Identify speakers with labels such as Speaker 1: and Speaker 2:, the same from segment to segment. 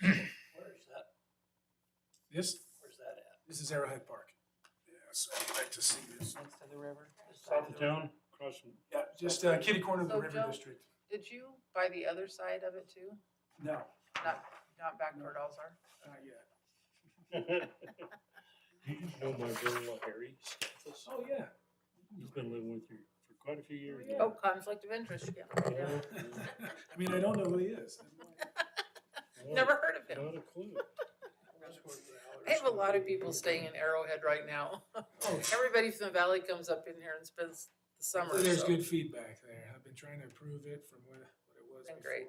Speaker 1: Hmm.
Speaker 2: This,
Speaker 3: Where's that at?
Speaker 2: this is Arrowhead Park. Yeah, so I'd like to see this.
Speaker 3: Next to the river? this side
Speaker 4: South
Speaker 3: of
Speaker 4: of
Speaker 3: the river?
Speaker 4: town, across from,
Speaker 2: Yeah, just uh, kitty corner of the
Speaker 5: So
Speaker 2: River
Speaker 5: Joe-
Speaker 2: District.
Speaker 5: Did you buy the other side of it too?
Speaker 2: No,
Speaker 5: Not, not back toward Alzar?
Speaker 2: not yet.
Speaker 4: you know my brother-in-law Harry Stathis?
Speaker 2: Oh, yeah.
Speaker 4: He's been living with you for quite a few years.
Speaker 2: yeah.
Speaker 4: now.
Speaker 5: Oh, conflict of interest, yeah.
Speaker 4: Yeah,
Speaker 2: I mean, I don't know who he is.
Speaker 4: yeah.
Speaker 5: Never heard of him.
Speaker 4: Not a clue.
Speaker 3: That's where the hours
Speaker 5: I have a
Speaker 3: were.
Speaker 5: lot of people staying in Arrowhead right now. Everybody from the valley comes up in here and spends the summer,
Speaker 2: There's
Speaker 5: so-
Speaker 2: good feedback there. I've been trying to improve it from what, what it was
Speaker 5: Been
Speaker 2: before.
Speaker 5: great.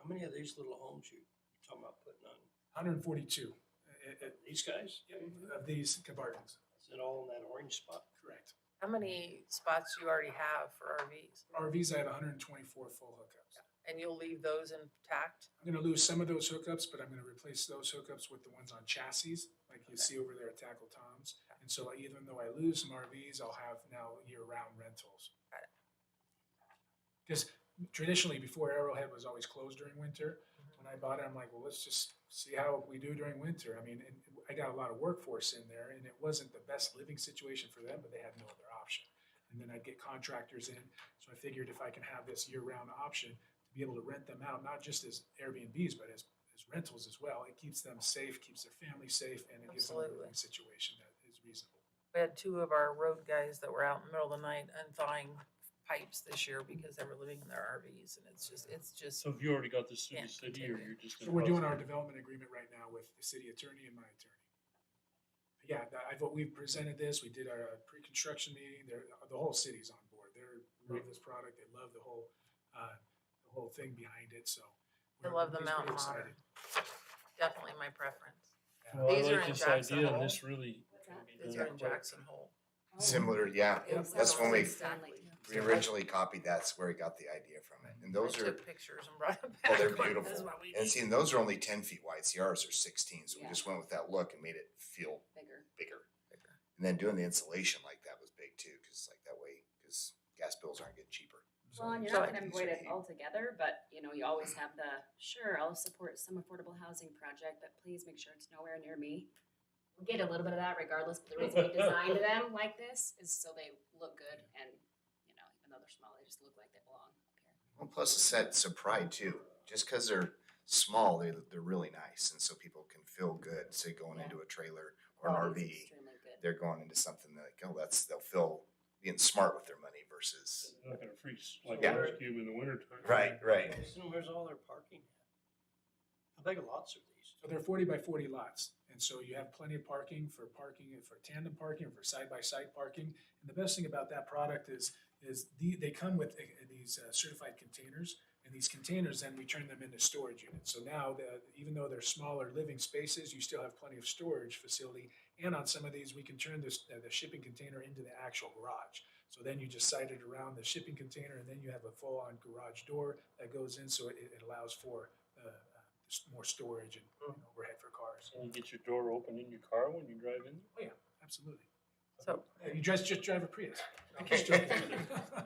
Speaker 3: How many of these little homes you talking about putting on?
Speaker 2: Hundred and forty-two uh, uh, uh,
Speaker 3: These guys?
Speaker 2: of these compartments,
Speaker 3: Is it all in that orange spot?
Speaker 2: correct.
Speaker 5: How many spots you already have for RVs?
Speaker 2: RVs, I had hundred and twenty-four full hookups.
Speaker 5: And you'll leave those intact?
Speaker 2: I'm gonna lose some of those hookups, but I'm gonna replace those hookups with the ones on chassis, like you
Speaker 5: Okay.
Speaker 2: see over there at Tackle Tom's. And so even though I lose some RVs, I'll have now year-round rentals.
Speaker 5: Got
Speaker 2: Because traditionally, before Arrowhead was always closed during winter, when I bought it, I'm like, well, let's just see how we do during winter. I mean, and I got a lot of workforce in there, and it wasn't the best living situation for them, but they had no other option. And then I'd get contractors in, so I figured if I can have this year-round option, to be able to rent them out, not just as Airbnbs, but as, as rentals as well. It keeps them safe, keeps their family safe, and it gives them a
Speaker 5: Absolutely.
Speaker 2: living situation that is reasonable.
Speaker 5: We had two of our road guys that were out in the middle of the night unthawing pipes this year because they were living in their RVs and it's just, it's just,
Speaker 4: So have you already got this through the
Speaker 5: Yeah,
Speaker 4: city
Speaker 5: take
Speaker 4: or
Speaker 5: it.
Speaker 4: you're just?
Speaker 2: So
Speaker 4: gonna
Speaker 2: we're doing our
Speaker 4: process it?
Speaker 2: development agreement right now with the city attorney and my attorney. Yeah, that- I've, we've presented this, we did our uh, pre-construction meeting, there, the whole city's on board. They're, love
Speaker 4: Right.
Speaker 2: this product, they love the whole, uh, the whole thing behind it, so.
Speaker 5: I
Speaker 2: we're-
Speaker 5: love the
Speaker 2: he's pretty
Speaker 5: mountain
Speaker 2: excited.
Speaker 5: modern. Definitely my preference.
Speaker 4: Well, I
Speaker 5: These are
Speaker 4: like this
Speaker 5: in Jackson
Speaker 4: idea
Speaker 5: Hole.
Speaker 4: and this really.
Speaker 1: What's
Speaker 4: can
Speaker 1: that?
Speaker 4: be
Speaker 5: These
Speaker 4: done
Speaker 5: are in
Speaker 4: quick.
Speaker 5: Jackson Hole.
Speaker 6: Similar, yeah.
Speaker 1: Yeah,
Speaker 2: Yep.
Speaker 6: That's when we-
Speaker 1: Exactly.
Speaker 6: We originally copied that's where we got the idea from it. And
Speaker 5: I
Speaker 6: those are
Speaker 5: took pictures and brought them back.
Speaker 6: well, they're
Speaker 5: going, "This is
Speaker 6: beautiful.
Speaker 5: what we
Speaker 6: and
Speaker 5: need."
Speaker 6: see, and those are only ten feet wide. See, ours are sixteen, so we
Speaker 1: Yeah.
Speaker 6: just went with that look and made it feel
Speaker 1: Bigger.
Speaker 6: bigger. And then doing the insulation like that was big too, because like that way, because gas bills aren't getting cheaper. So
Speaker 1: Well, and you're
Speaker 5: So
Speaker 1: not
Speaker 5: I
Speaker 1: gonna
Speaker 6: think
Speaker 1: avoid
Speaker 6: so.
Speaker 1: it altogether, but you know, you always have the, sure, I'll support some affordable housing project, but please make sure it's nowhere near me. We'll Get a little bit of that regardless, but the reason we designed them like this is so they look good and, you know, even though they're small, they just look like they belong up here.
Speaker 6: Well, plus a sense of pride too. Just because they're small, they they're really nice, and so people can feel good. Say going
Speaker 1: Yeah.
Speaker 6: into a trailer or an
Speaker 1: Quality is
Speaker 6: RV,
Speaker 1: Extremely good.
Speaker 6: they're going into something that like, oh, that's they'll feel being smart with their money versus
Speaker 4: They're Not gonna freeze like
Speaker 6: Yeah.
Speaker 4: an ice cube in the winter time.
Speaker 6: right.
Speaker 3: So where's all their parking at? How big lots are these?
Speaker 2: So they're forty by forty lots, and so you have plenty of parking for parking, and for tandem parking, and for side-by-side parking. And the best thing about that product is, is the, they come with uh, these uh, certified containers, and these containers, then we turn them into storage units. So now, the, even though they're smaller living spaces, you still have plenty of storage facility. And on some of these, we can turn this, uh, the shipping container into the actual garage. So then you just site it around the shipping container, and then you have a full-on garage door that goes in, so it, it allows for, uh, uh, s- more storage and you know, overhead for cars.
Speaker 4: And you get your door open in your car when you drive in.
Speaker 2: Absolutely.
Speaker 5: So,
Speaker 2: Yeah, You just, just drive a Prius. I'm just joking.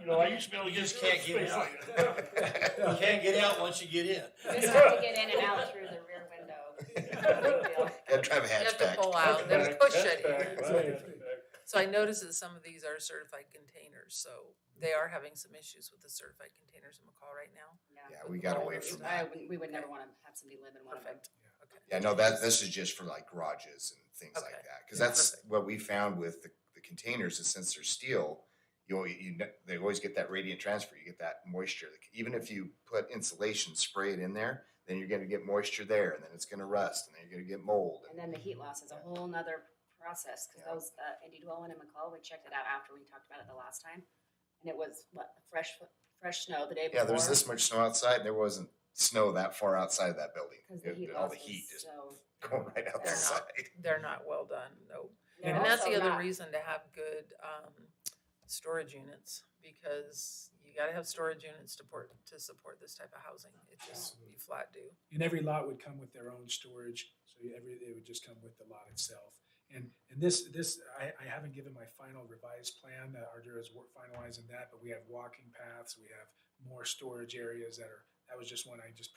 Speaker 4: You know, I used to be able to
Speaker 3: You
Speaker 4: get.
Speaker 3: just can't get
Speaker 4: space
Speaker 3: out.
Speaker 4: like that.
Speaker 3: You can't get out once you get
Speaker 1: You
Speaker 3: in.
Speaker 1: just have to get in and out through the rear window. Big deal.
Speaker 6: Gotta drive a
Speaker 5: You have to
Speaker 6: hatchback.
Speaker 5: pull out. Wow, there's
Speaker 4: Hatchback,
Speaker 5: cushion.
Speaker 4: hatchback, right, hatchback.
Speaker 5: so I noticed that some of these are certified containers, so they are having some issues with the certified containers in McCall right now.
Speaker 6: Yeah, we got away
Speaker 5: It's-
Speaker 6: from
Speaker 1: I
Speaker 6: that.
Speaker 1: wouldn't, we would never wanna have somebody live in one of them.
Speaker 5: Perfect.
Speaker 6: Yeah, no, that this is just for like garages and things
Speaker 5: Okay.
Speaker 6: like that. Because
Speaker 5: Yeah,
Speaker 6: that's
Speaker 5: perfect.
Speaker 6: what we found with the, the containers is since they're steel, you always, you ne- they always get that radiant transfer. You get that moisture. Like, even if you put insulation, spray it in there, then you're gonna get moisture there, and then it's gonna rust, and then you're gonna get mold.
Speaker 1: And then the heat loss is a whole nother process, cause
Speaker 6: Yeah.
Speaker 1: those, uh, Indy Dwellin and McCall, we checked it out after we talked about it the last time. And it was, what, fresh, fresh snow the day before?
Speaker 6: yeah, there's this much snow outside. and There wasn't snow that far outside of that building.
Speaker 1: Cause the
Speaker 6: It-
Speaker 1: heat
Speaker 6: all
Speaker 1: loss
Speaker 6: the
Speaker 1: was
Speaker 6: heat just
Speaker 1: so.
Speaker 6: going right out the
Speaker 5: Yeah.
Speaker 6: side.
Speaker 5: They're not well done, no.
Speaker 1: They're
Speaker 5: And that's
Speaker 1: also
Speaker 5: the other
Speaker 1: not-
Speaker 5: reason to have good, um, storage units, because you gotta have storage units to port, to support this type of housing. It just, you flat do.
Speaker 2: And every lot would come with their own storage, so you- every, they would just come with the lot itself. And, and this, this, I, I haven't given my final revised plan, uh, Ardura is wor- finalizing that, but we have walking paths, we have more storage areas that are, that was just one I just